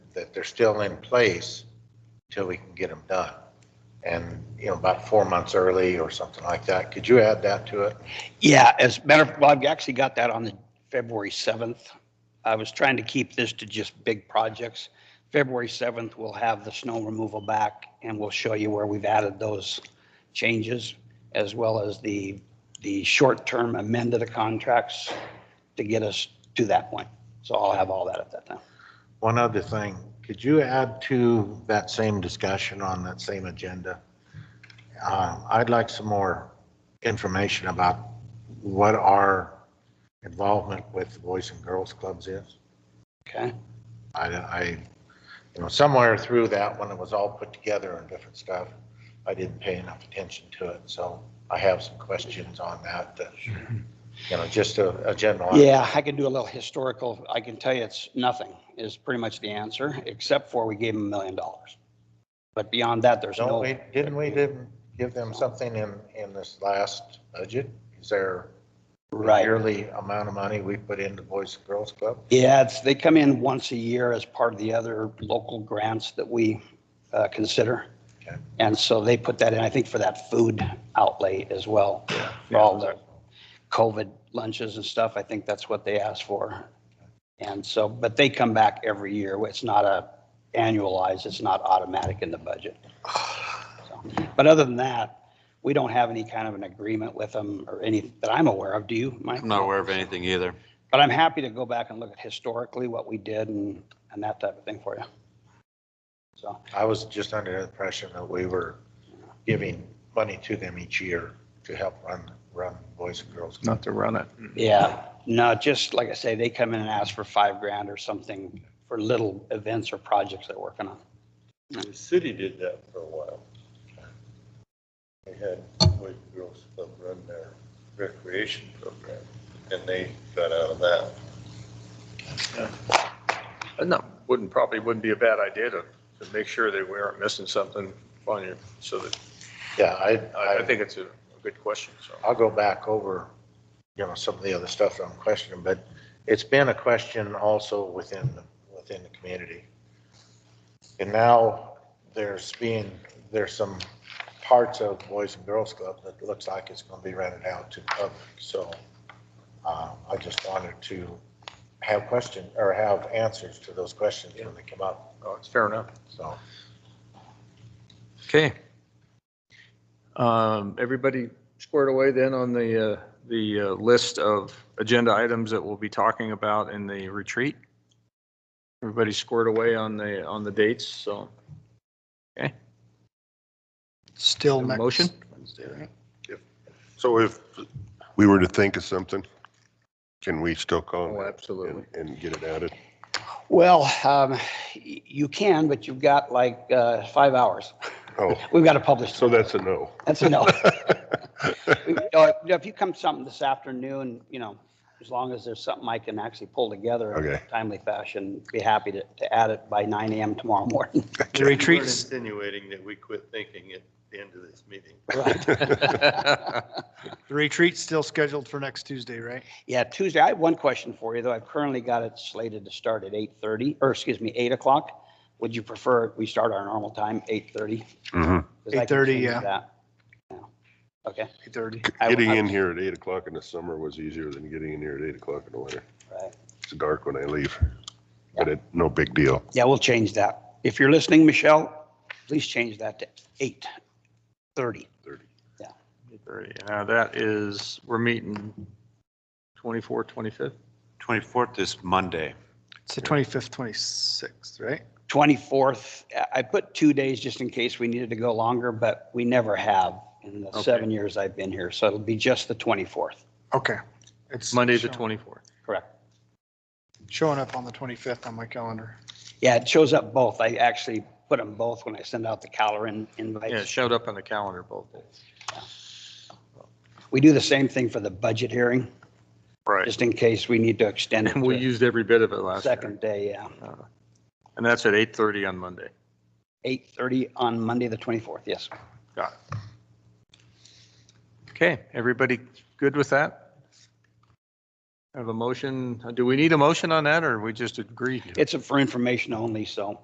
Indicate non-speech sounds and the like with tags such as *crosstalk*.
that they're still in place till we can get them done. And, you know, about four months early or something like that. Could you add that to it? Yeah, as a matter of, well, I've actually got that on the February 7th. I was trying to keep this to just big projects. February 7th, we'll have the snow removal back and we'll show you where we've added those changes as well as the, the short-term amend to the contracts to get us to that point. So I'll have all that at that time. One other thing, could you add to that same discussion on that same agenda? Um, I'd like some more information about what our involvement with the Boys and Girls Clubs is. Okay? I, I, you know, somewhere through that, when it was all put together and different stuff, I didn't pay enough attention to it, so I have some questions on that, that, you know, just a, a general. Yeah, I can do a little historical. I can tell you it's nothing is pretty much the answer, except for we gave them a million dollars. But beyond that, there's Don't no, we, didn't we, didn't give them something in, in this last budget? Is there right. yearly amount of money we put into Boys and Girls Club? Yeah, it's, they come in once a year as part of the other local grants that we uh, consider. Okay. And so they put that in, I think, for that food outlay as well, for all the COVID lunches and stuff. I think that's what they asked for. And so, but they come back every year. It's not a annualized, it's not automatic in the budget. So, But other than that, we don't have any kind of an agreement with them or any, that I'm aware of. Do you, Mike? I'm not aware of anything either. But I'm happy to go back and look at historically what we did and, and that type of thing for you. So, I was just under the impression that we were giving money to them each year to help run, run Boys and Girls. Club. not to run it. yeah, no, just like I say, they come in and ask for five grand or something for little events or projects they're working on. The city did that for a while. They had Boys and Girls Club run their recreation program, and they got out of that. No, wouldn't, probably wouldn't be a bad idea to, to make sure that we aren't missing something on you, so that, Yeah, I, I, I think it's a a good question, so. I'll go back over, you know, some of the other stuff that I'm questioning, but it's been a question also within, within the community. And now there's being, there's some parts of Boys and Girls Club that looks like it's gonna be rented out to the public, so uh, I just wanted to have question, or have answers to those questions when they come up, No, uh, it's fair enough. so. Okay, Um, everybody squared away then on the, uh, the uh, list of agenda items that we'll be talking about in the retreat? Everybody squared away on the, on the dates, so. Still A next. motion? Wednesday, right? So if we were to think of something, can we still call Oh, it absolutely. and, and get it added? Well, um, y- you can, but you've got like, uh, five hours. Oh, We've got to publish. so that's a no. That's a *laughs* no. We- uh, If you come something this afternoon, you know, as long as there's something I can actually pull together in a Okay. timely fashion, be happy to, to add it by nine AM tomorrow morning. The retreats. Insinuating that we quit thinking at the end of this meeting. The retreat's still scheduled for next Tuesday, right? Yeah, Tuesday, I have one question for you, though. I've currently got it slated to start at eight thirty, or excuse me, eight o'clock. Would you prefer we start our normal time, eight thirty? Mhm. 8:30, yeah. Okay, Eight thirty. I- Getting I- in here at eight o'clock in the summer was easier than getting in here at eight o'clock in the winter. right. It's dark when I leave, but it, no big deal. Yeah, we'll change that. If you're listening, Michelle, please change that to eight thirty. Now, uh, that is, we're meeting 24, 25th? 24th is Monday. It's the twenty-fifth, twenty-sixth, right? 24th, I- I put two days just in case we needed to go longer, but we never have in the Okay. seven years I've been here. So it'll be just the 24th, Okay. It's Monday, the show- 24th. correct? Showing up on the twenty-fifth on my calendar. Yeah, it shows up both. I actually put them both when I send out the calendar Yeah, it invites. showed up on the calendar both days. We do the same thing for the budget hearing, Right. just in case we need to extend it And we to used every bit of it the last year. second day, yeah. Uh, And that's at 8:30 on Monday. 8:30 on Monday, the 24th, yes. Got it. Okay, everybody good with that? Have a motion? Do we need a motion on that or we just agreed? It's for information only, so